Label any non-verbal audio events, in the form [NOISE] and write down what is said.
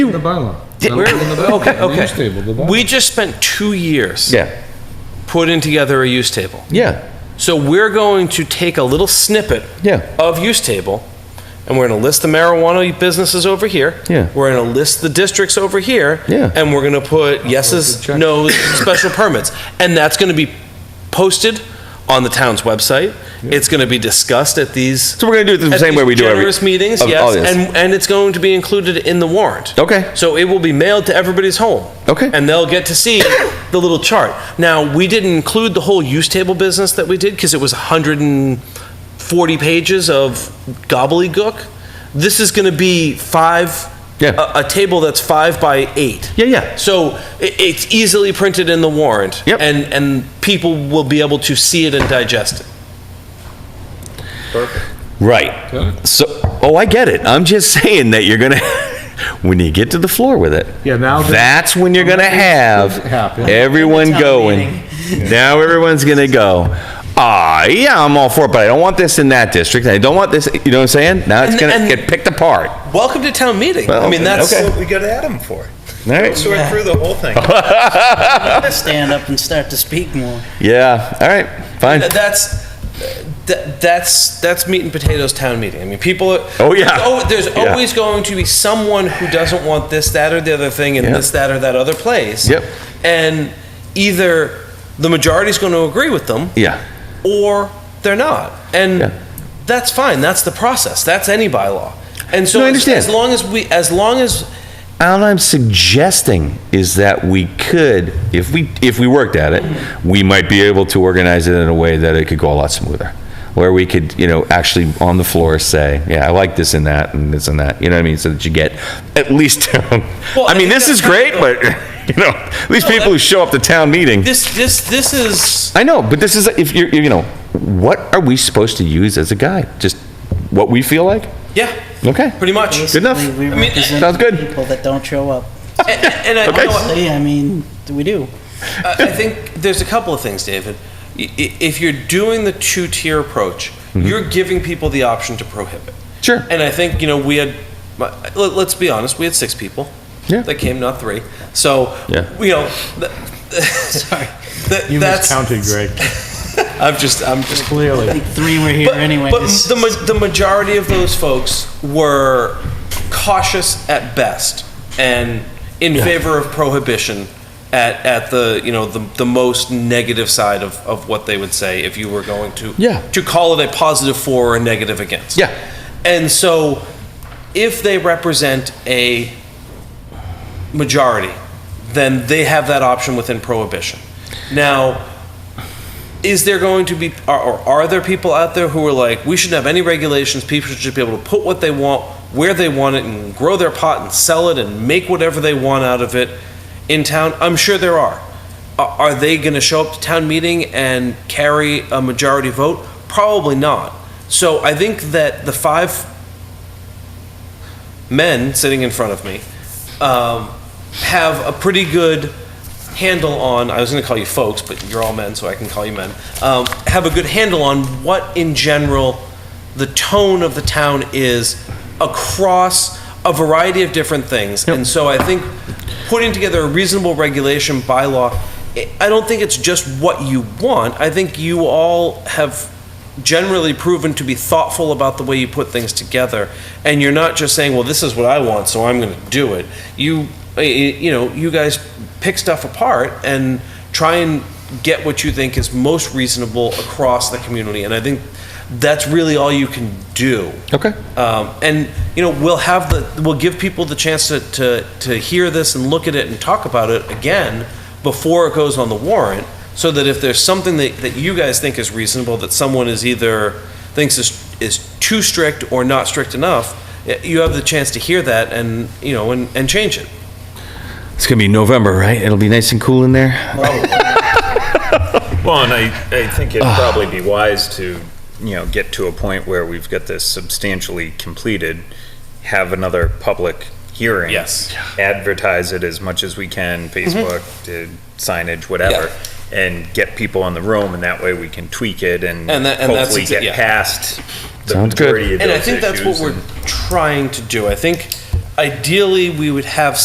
in the bylaw. It's Where- in the bylaw, okay, in the okay. use table, the bylaw. We just spent two years Yeah, putting together a use table. yeah, So we're going to take a little snippet yeah, of use table, and we're going to list the marijuana businesses over here. Yeah. We're going to list the districts over here. Yeah. And we're going to put yeses, check. [COUGHS] nos, special permits. And that's going to be posted on the town's website. It's going to be discussed at these. So we're gonna do it the at same these way we do every- Generous meetings, of all yes, this. and, and it's going to be included in the warrant. okay, So it will be mailed to everybody's home. Okay. And they'll get to see [COUGHS] the little chart. Now, we didn't include the whole use table business that we did because it was 140 pages of gobbledygook. This is going to be five, Yeah. a, a table that's five by eight. yeah, yeah, So it, it's easily printed in the warrant. Yep. And, and people will be able to see it and digest it. right. Yeah. So, oh, I get it. I'm just [LAUGHS] saying that you're gonna, when you get to the floor with it. Yeah, now that- That's when you're gonna have happen. everyone Town going. meeting. Now everyone's gonna go, ah, yeah, I'm all for it, but I don't want this in that district. I don't want this, you know what I'm saying? Now it's And- gonna and- get picked apart. Welcome to town meeting. Well, I mean, that's, okay. That's what we got Adam for. All right. Sort through the whole thing. stand up and start to speak more. Yeah, all right, fine. Th- that's th- that's that's meat and potatoes town meeting. I mean, people. Are, Oh, yeah. Oh, there's Yeah. always going to be someone who doesn't want this, that, or the other thing in Yeah. this, that, or that other place. Yep. And either the majority's going to agree with them, Yeah, or they're not, and Yeah. that's fine. That's the process. That's any bylaw. And so, No, I as- understand. as long as we, as long as All I'm suggesting is that we could, if we, if we worked at it, we might be able to organize it in a way that it could go a lot smoother. Where we could, you know, actually on the floor say, yeah, I like this and that and this and that, you know what I mean? So that you get at least, [LAUGHS] Well, I I mean, think this is that's great, kind but, [LAUGHS] you know, at least people who show up to town meeting. this, this, this is I know, but this is, if you're, you know, what are we supposed to use as a guide? Just what we feel like? yeah, Okay. pretty much. Basically, enough. we I mean, represent sounds good. People that don't show up. And, and I, Okay. you know, Honestly, I mean, we do. I I think there's a couple of things, David. I- i- If you're doing the two-tier approach, Mm-hmm. you're giving people the option to prohibit. Sure. And I think, you know, we had, let- let's be honest, we had six people. Yeah. That came, not three. So, Yeah. you know, [LAUGHS] th- [LAUGHS] Sorry. th- You that's. miscounted, Greg. [LAUGHS] I'm just, I'm just I Clearly. think three were here but, anyway. but the, ma- the majority of those folks were cautious at best and in favor of prohibition at, at the you know the, the most negative side of, of what they would say if you were going to Yeah. to call it a positive for or a negative against Yeah. and so if they represent a majority then they have that option within prohibition now is there going to be are, or are there people out there who are like we shouldn't have any regulations people should be able to put what they want where they want it and grow their pot and sell it and make whatever they want out of it in town i'm sure there are A- are they going to show up to town meeting and carry a majority vote probably not so i think that the five men sitting in front of me um, have a pretty good handle on, I was going to call you folks, but you're all men, so I can call you men, um, have a good handle on what in general the tone of the town is across a variety of different things. And so I think putting together a reasonable regulation bylaw, I- I don't think it's just what you want. I think you all have generally proven to be thoughtful about the way you put things together and you're not just saying well this is what i want so i'm going to do it you eh, you know you guys pick stuff apart and try and get what you think is most reasonable across the community and i think that's really all you can do Okay. um, and you know we'll have the we'll give people the chance to, to to hear this and look at it and talk about it again before it goes on the warrant so that if there's something that, that you guys think is reasonable that someone is either thinks is is too strict or not strict enough y- you have the chance to hear that and you know and, and change it It's gonna be November, right? It'll be nice and cool in there. Well, and I, I think it'd probably be wise to, you know, get to a point where we've got this substantially completed, have another public hearing. Yes. Advertise it as much as we can, Mm-hmm. Facebook, to signage, whatever, and get people in the room, and that way we can tweak it and And that- and that's hopefully exa- get yeah. past the Sounds good. majority of and i those think that's what issues we're and- trying to do i think ideally we would have